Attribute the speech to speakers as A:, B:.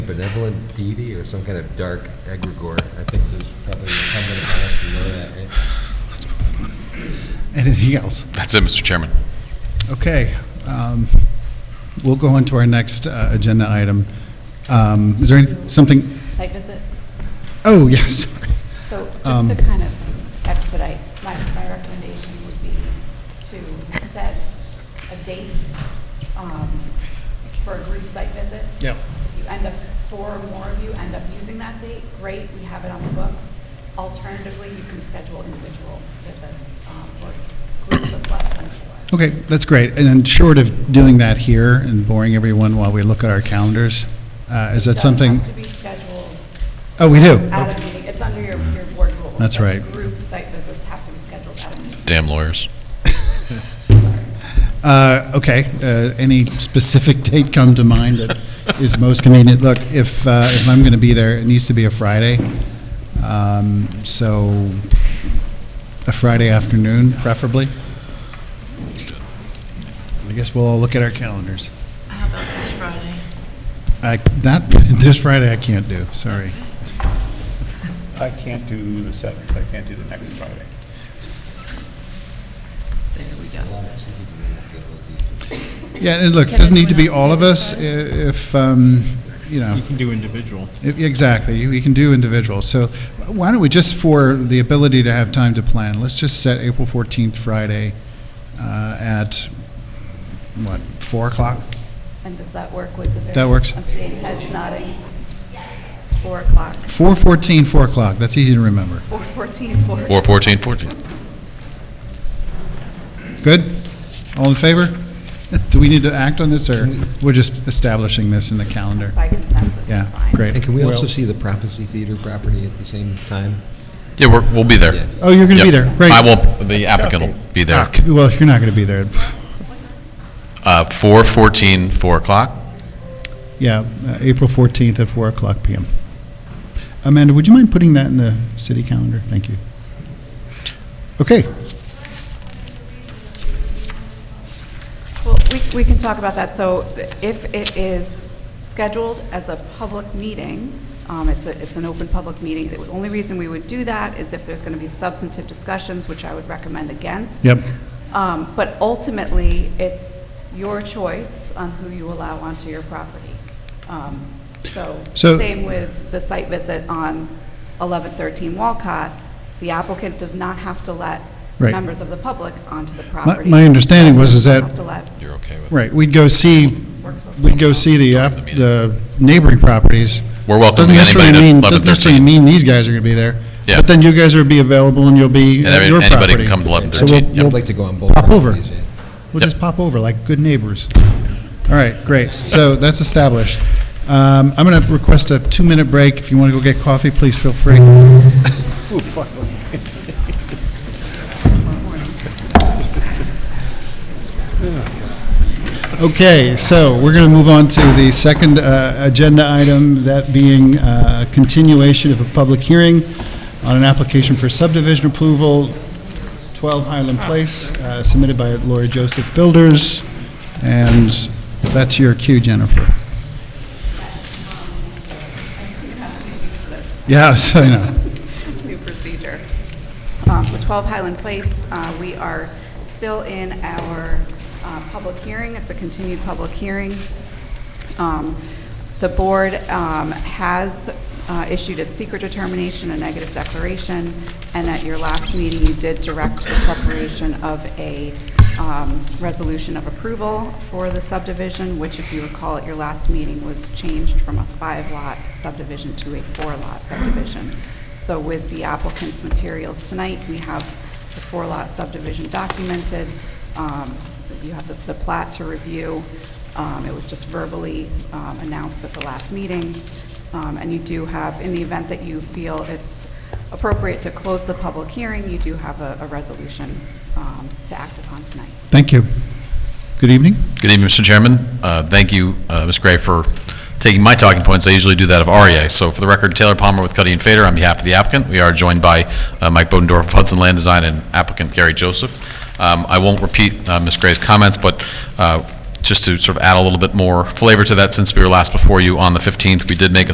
A: benevolent deity or some kind of dark egregore. I think there's probably incumbent upon us to know that, right?
B: Anything else?
C: That's it, Mr. Chairman.
B: Okay. um, We'll go on to our next uh, agenda item. Um, Is there any- something,
D: site visit.
B: oh, yes.
D: So
B: Um,
D: just to kind of expedite, my, my recommendation would be to set a date um, for a group site visit.
B: Yep.
D: If you end up, four or more of you end up using that date, great, we have it on the books. Alternatively, you can schedule individual visits um, or groups of less than four.
B: Okay, that's great. And then short of doing that here and boring everyone while we look at our calendars, uh, is that
D: It
B: something?
D: does have to be scheduled
B: Oh, we do.
D: at a meeting, it's under your, your board rules.
B: That's
D: that
B: right.
D: Group site visits have to be scheduled at a meeting.
C: Damn lawyers.
B: Uh, Okay, uh, any specific date come to mind that is most convenient? Look, if, uh, if I'm going to be there, it needs to be a Friday. Um, So a Friday afternoon preferably. I guess we'll all look at our calendars.
E: How about this Friday?
B: I, that, this Friday I can't do, sorry.
F: I can't do the seventh, I can't do the next Friday.
E: There we go.
B: Yeah, and look, it
E: Can
B: doesn't need to be
E: anyone else
B: all
E: do
B: of
E: it
B: us i- if, um, you know.
G: You can do individual.
B: If- E-, Exactly, we can do individuals. So why don't we, just for the ability to have time to plan, let's just set April 14th, Friday, uh, at, what, 4 o'clock?
D: And does that work with the? various-
B: That works.
D: I'm seeing heads nodding. Four o'clock,
B: 4:14, 4 o'clock, that's easy to remember.
D: four fourteen, four.
C: 414, 14.
B: Good? All in favor? Do we need to act on this, or we're just establishing this in the calendar?
D: By consensus
B: Yeah,
D: is fine.
B: great.
A: And can we also
B: Well-
A: see the Prophecy Theater property at the same time?
C: Yeah, we're, we'll be there.
A: Yeah.
B: Oh, you're going to be
C: Yep.
B: there, great.
C: I won't, the applicant will be there.
B: Ah, c- Well, if you're not going to be there,
C: Uh, 414, 4 o'clock.
B: yeah, uh, April 14th at 4 o'clock PM. Amanda, would you mind putting that in the city calendar? Thank you. Okay.
D: Well, we, we can talk about that. So if it is scheduled as a public meeting, um, it's a, it's an open public meeting. The only reason we would do that is if there's going to be substantive discussions, which I would recommend against.
B: Yep.
D: Um, but ultimately, it's your choice on who you allow onto your property. Um, so,
B: So-
D: same with the site visit on 1113 Walcott, the applicant does not have to let
B: Right.
D: members of the public onto the property.
B: my understanding was is that-
D: Doesn't have to let
C: You're okay with it?
B: Right, we'd go see, we'd go see the, app- the neighboring properties.
C: We're
B: Doesn't
C: welcoming
B: necessarily
C: anybody to
B: mean-
C: 11,
B: Doesn't necessarily
C: 13.
B: mean these guys are going to be there.
C: Yeah.
B: But then you guys will be available and you'll be
C: And
B: at
C: every-
B: your property.
C: anybody can come to 11,
B: So we'll-
C: 13, yep.
B: we'll
A: I'd like to go on both
B: Pop over.
A: properties, yeah.
B: We'll
C: Yep.
B: just pop over like good neighbors. All right, great. So that's established. Um, I'm going to request a two-minute break. If you want to go get coffee, please feel free. Okay, so we're going to move on to the second uh, agenda item, that being uh, continuation of a public hearing on an application for subdivision approval 12 Highland Place, uh, submitted by Lori Joseph Builders, and that's your cue, Jennifer. Yes, I know.
D: new procedure. Um, So 12 Highland Place, uh, we are still in our uh, public hearing. It's a continued public hearing. Um, The board um, has uh, issued its secret determination, a negative declaration, and at your last meeting, you did direct the preparation of a um, resolution of approval for the subdivision, which, if you recall, at your last meeting was changed from a five-lot subdivision to a four-lot subdivision. So with the applicant's materials tonight, we have the four-lot subdivision documented. Um, You have the- the plat to review. Um, It was just verbally um, announced at the last meeting. Um, And you do have, in the event that you feel it's appropriate to close the public hearing, you do have a a resolution um, to act upon tonight.
B: Thank you. Good evening.
C: Good evening, Mr. Chairman. Uh, Thank you, uh, Ms. Gray, for taking my talking points. I usually do that of REA. So for the record, Taylor Palmer with Cuddy and Fader on behalf of the applicant. We are joined by uh, Mike Bodendorf of Hudson Land Design and applicant Gary Joseph. Um, I won't repeat uh, Ms. Gray's comments, but uh, just to sort of add a little bit more flavor to that, since we were last before you on the 15th, we did make a